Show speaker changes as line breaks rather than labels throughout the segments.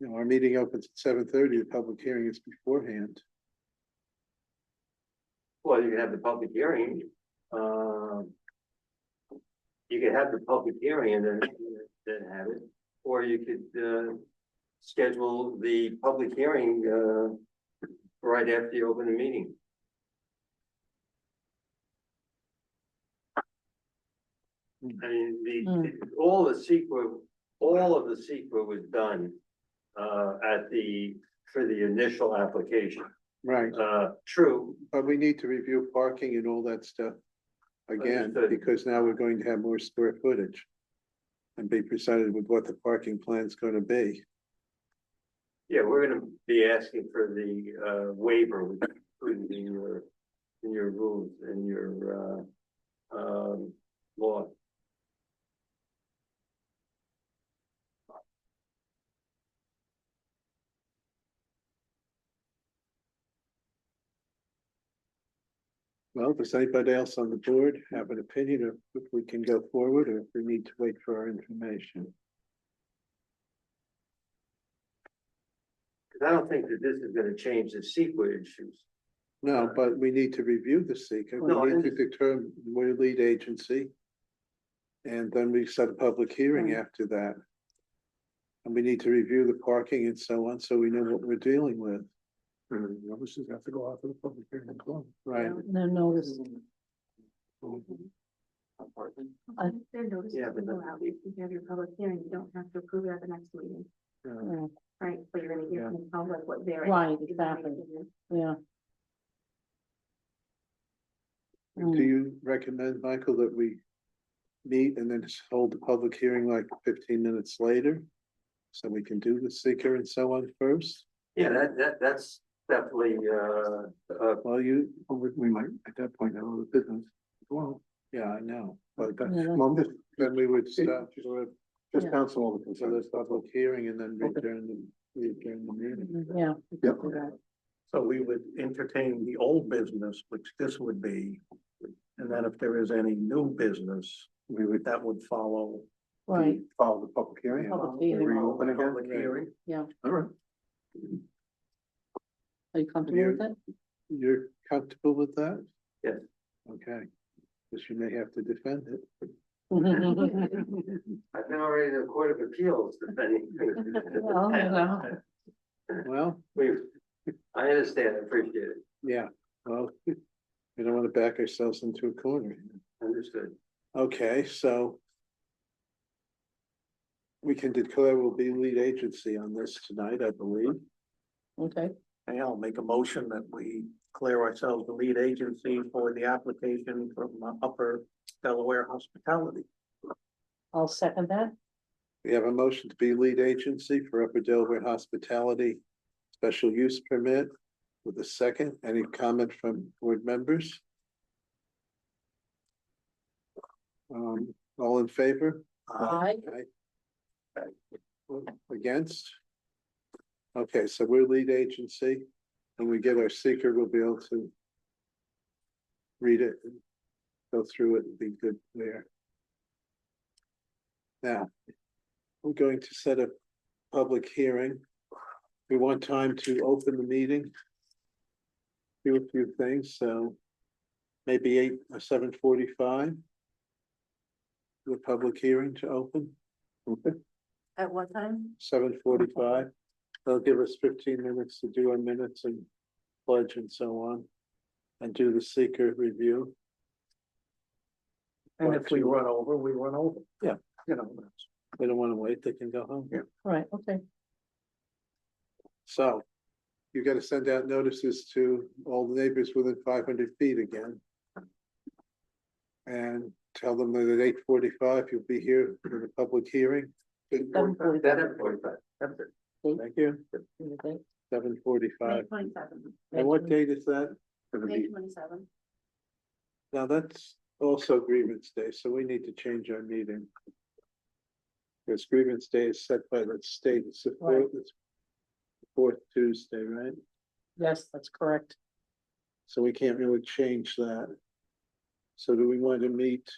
you know, our meeting opens at seven thirty, the public hearing is beforehand.
Well, you can have the public hearing, um. You could have the public hearing and then, then have it, or you could, uh, schedule the public hearing, uh, right after you open the meeting. I mean, the, all the secret, all of the secret was done, uh, at the, for the initial application.
Right,
Uh, true,
but we need to review parking and all that stuff again,
Understood.
because now we're going to have more square footage. And be presented with what the parking plan's gonna be.
Yeah, we're gonna be asking for the uh waiver which is included in your, in your rules, in your uh um law.
Well, does anybody else on the board have an opinion of if we can go forward or if we need to wait for our information?
Cause I don't think that this is gonna change the CEQA issues.
No, but we need to review the seeker,
No, I
we need to
understand.
determine where lead agency. And then we set a public hearing
Right.
after that. And we need to review the parking and so on, so we know what we're dealing with. And we obviously have to go after the public hearing and close. Right,
No notice. I-
Their notice
Yeah,
will
but
go
that-
out, if you have your public hearing, you don't have to approve it at the next meeting,
yeah.
Yeah,
right, but you're gonna hear
Yeah.
from the public what they're.
Right,
is
exactly.
thinking.
yeah.
do
Mm,
you recommend, Michael, that we meet and then just hold the public hearing like fifteen minutes later? So we can do the seeker and so on first?
Yeah, that that that's definitely uh uh
Well, you, oh, we might, at that point, have other business as well. Yeah, I know, but
Yeah, that's-
then we would stop for
Just
counsel all the concerns. Public hearing and then return the, return the meeting.
Mm-hmm, Yeah.
Yep.
So we would entertain the old business, which this would be. And then if there is any new business,
We would
that would follow.
Right,
follow the public hearing.
Public hearing.
Reopen again?
Public hearing.
yeah.
All right.
Are you comfortable with it?
You're comfortable with that?
Yes.
Okay, because you may have to defend it.
I've been already in the Court of Appeals defending.
Well, you know.
Well,
We, I understand, I appreciate it,
yeah, well, we don't want to back ourselves into a corner.
understood.
Okay, so. We can declare we'll be lead agency on this tonight, I believe.
Okay,
Hey, I'll make a motion that we clear ourselves the lead agency for the application from uh, Upper Delaware Hospitality.
I'll second that.
We have a motion to be lead agency for Upper Delaware Hospitality Special Use Permit with a second. Any comment from board members? Um, all in favor?
Uh,
Aye.
Against? Okay, so we're lead agency. When we get our seeker, we'll be able to read it, and go through it, and be good there. Now, we're going to set a public hearing. We want time to open the meeting. Do a few things, so maybe eight or seven forty-five. The public hearing to open. Okay
At what time?
seven forty-five. They'll give us fifteen minutes to do our minutes and pledge and so on. And do the seeker review.
And if we run over, we run over.
Yeah.
You know, that's-
They don't wanna wait, they can go home.
Yeah.
Right, okay.
So you gotta send out notices to all the neighbors within five hundred feet again. And tell them that at eight forty-five, you'll be here for the public hearing.
Seven forty-five.
Seven forty-five, that's it.
Thank you.
you think?
Seven
May
Uh,
forty-five.
twenty-seven,
And what date is that?
May twenty-seven.
Now, that's also grievance day, so we need to change our meeting. Because grievance day is set by the state, it's the
Right.
fourth, it's the fourth Tuesday, right?
Yes, that's correct.
So we can't really change that. So do we want to meet?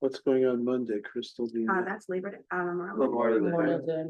What's going on Monday, Crystal? do you
Uh,
know?
that's Labor Day, um, around.
Memorial Day.
Memorial Day.